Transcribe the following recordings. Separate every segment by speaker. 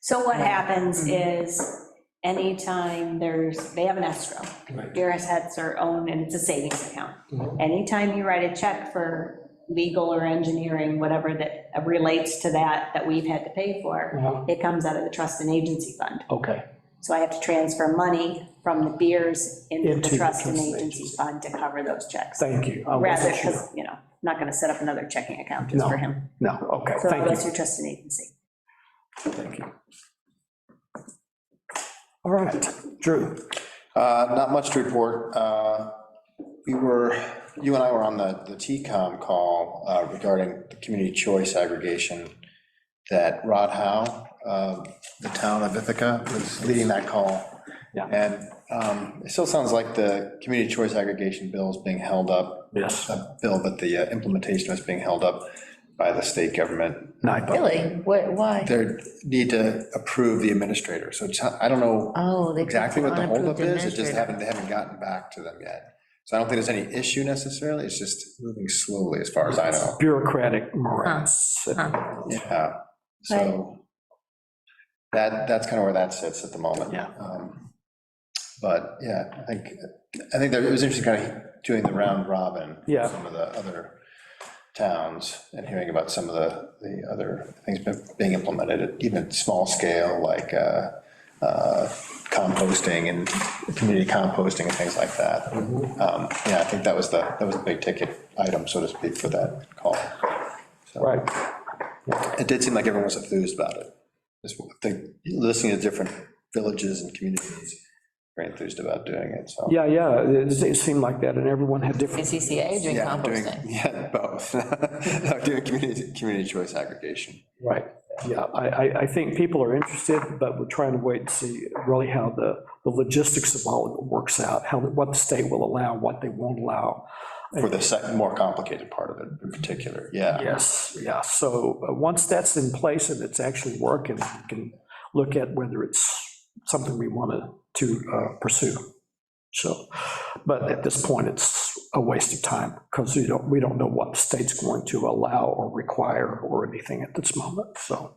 Speaker 1: So what happens
Speaker 2: Mm-hmm.
Speaker 1: is, anytime there's, they have an escrow.
Speaker 2: Right.
Speaker 1: Dearest has her own, and it's a savings account.
Speaker 2: Mhm.
Speaker 1: Anytime you write a check for legal or engineering, whatever that relates to that, that we've had to pay for,
Speaker 2: Uh-huh.
Speaker 1: it comes out of the trust and agency fund.
Speaker 2: Okay,
Speaker 1: So I have to transfer money from the beers into the
Speaker 2: Into the
Speaker 1: trust and
Speaker 2: trust and
Speaker 1: agency
Speaker 2: agency.
Speaker 1: fund to cover those checks.
Speaker 2: thank you. I
Speaker 1: Rather,
Speaker 2: wasn't sure.
Speaker 1: because, you know, I'm not going to set up another checking account just
Speaker 2: No.
Speaker 1: for him.
Speaker 2: No, okay,
Speaker 1: So it
Speaker 2: thank
Speaker 1: goes
Speaker 2: you,
Speaker 1: through trust and agency.
Speaker 2: thank you. All right, Drew,
Speaker 3: Uh, Not much to report. Uh, We were, you and I were on the, the TCOM call uh, regarding the community choice aggregation that Rod Howe, uh, the town of Ithaca, was leading that call.
Speaker 2: Yeah.
Speaker 3: And um, it still sounds like the community choice aggregation bill is being held up,
Speaker 2: yes,
Speaker 3: a bill, but the uh, implementation is being held up by the state government.
Speaker 2: nine,
Speaker 4: Really? What, why?
Speaker 3: They need to approve the administrator, so it's- I don't know
Speaker 4: Oh, they.
Speaker 3: exactly what the holdup
Speaker 4: unapproved
Speaker 3: is, it just
Speaker 4: administrator.
Speaker 3: haven't, they haven't gotten back to them yet. So I don't think there's any issue necessarily, it's just moving slowly as far as I know.
Speaker 2: bureaucratic morass.
Speaker 4: huh.
Speaker 3: Yeah, so that, that's kind of where that sits at the moment.
Speaker 2: Yeah.
Speaker 3: Um, But yeah, I think, I think that it was interesting kind of doing the round robin. with
Speaker 2: Yeah.
Speaker 3: Some of the other towns and hearing about some of the, the other things been- being implemented, at even small scale, like uh, uh, composting and community composting and things like that. Um, Yeah, I think that was the, that was the big ticket item, so to speak, for that call. So-
Speaker 2: Right,
Speaker 3: it did seem like everyone was enthused about it. Just the- listening to different villages and communities, very enthused about doing it, so.
Speaker 2: yeah, yeah, it it seemed like that, and everyone had different,
Speaker 4: CCA doing
Speaker 3: Yeah, doing-
Speaker 4: composting.
Speaker 3: Yeah, both. No, Doing community, community choice aggregation.
Speaker 2: right, yeah, I, I, I think people are interested, but we're trying to wait and see really how the, the logistics of all of it works out, how, what the state will allow, what they won't allow.
Speaker 3: For the sec- more complicated part of it in particular, yeah.
Speaker 2: Yes, yeah, so uh, once that's in place and it's actually working, we can look at whether it's something we wanted to uh, pursue. So, but at this point, it's a waste of time, because we don't, we don't know what the state's going to allow or require or anything at this moment, so.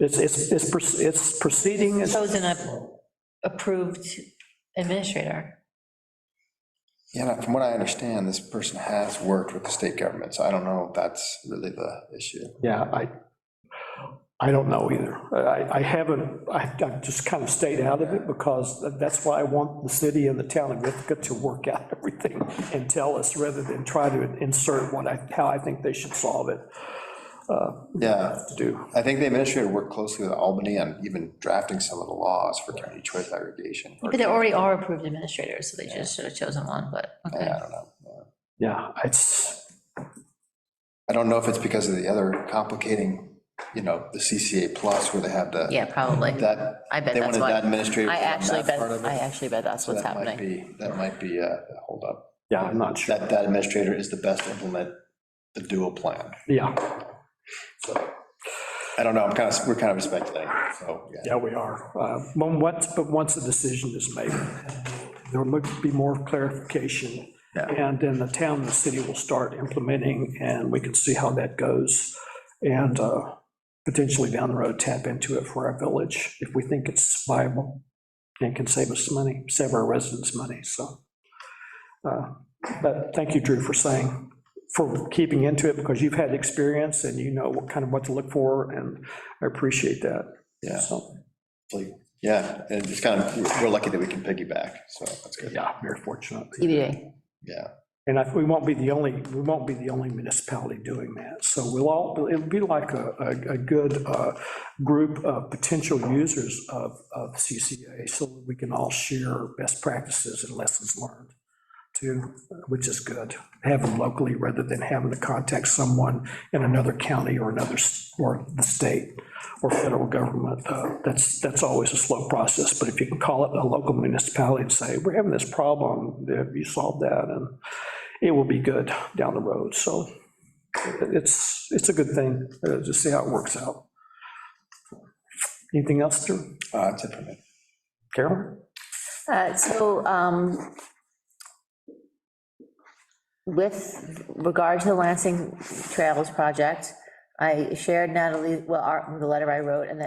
Speaker 2: It's, it's, it's proce- it's proceeding, it's-
Speaker 4: Chosen a approved administrator.
Speaker 3: Yeah, and from what I understand, this person has worked with the state government, so I don't know if that's really the issue.
Speaker 2: yeah, I, I don't know either. I, I haven't, I, I've just kind of stayed out of it because that's why I want the city and the town of Ithaca to work out everything and tell us rather than try to insert what I, how I think they should solve it uh,
Speaker 3: Yeah,
Speaker 2: to do.
Speaker 3: I think the administrator worked closely with Albany on even drafting some of the laws for community choice aggregation.
Speaker 4: But there already are approved administrators, so they just should have chosen one, but, okay.
Speaker 3: Yeah, I don't know. yeah.
Speaker 2: Yeah, it's,
Speaker 3: I don't know if it's because of the other complicating, you know, the CCA plus where they have the,
Speaker 4: Yeah, probably.
Speaker 3: that,
Speaker 4: I bet
Speaker 3: they
Speaker 4: that's
Speaker 3: wanted that
Speaker 4: why.
Speaker 3: administrative.
Speaker 4: I
Speaker 3: on that
Speaker 4: actually bet,
Speaker 3: part of it.
Speaker 4: I actually bet that's
Speaker 3: So
Speaker 4: what's
Speaker 3: that might
Speaker 4: happening.
Speaker 3: be- That might be, uh, hold up,
Speaker 2: yeah, I'm not sure.
Speaker 3: that, that administrator is the best to implement the dual plan.
Speaker 2: Yeah,
Speaker 3: I don't know, I'm kind of, we're kind of speculating, so, yeah.
Speaker 2: yeah, we are. Uh, When, once, but once a decision is made, there will be more clarification.
Speaker 3: Yeah.
Speaker 2: And then the town and the city will start implementing, and we can see how that goes. And uh, potentially down the road, tap into it for our village if we think it's viable and can save us money, save our residents money, so. uh, But thank you, Drew, for saying, for keeping into it, because you've had experience and you know what kind of what to look for, and I appreciate that.
Speaker 3: Yeah.
Speaker 2: So,
Speaker 3: Like, Yeah, and it's kind of, we're lucky that we can piggyback, so that's good,
Speaker 2: yeah, very fortunate.
Speaker 4: TBA.
Speaker 3: yeah.
Speaker 2: And I- we won't be the only, we won't be the only municipality doing that. So we'll all, it'll be like a, a- a good uh, group of potential users of, of CCA, so that we can all share best practices and lessons learned, too, which is good. Have them locally rather than having to contact someone in another county or another, s- or the state or federal government. Uh, That's, that's always a slow process, but if you can call it a local municipality and say, we're having this problem, have you solved that? And it will be good down the road, so it's, it's a good thing, uh, just see how it works out. Anything else, Drew?
Speaker 3: Uh, That's it for me.
Speaker 2: Carolyn?
Speaker 5: Uh, So um, with regard to the Lansing Trails project, I shared Natalie, well, our- the letter I wrote, and then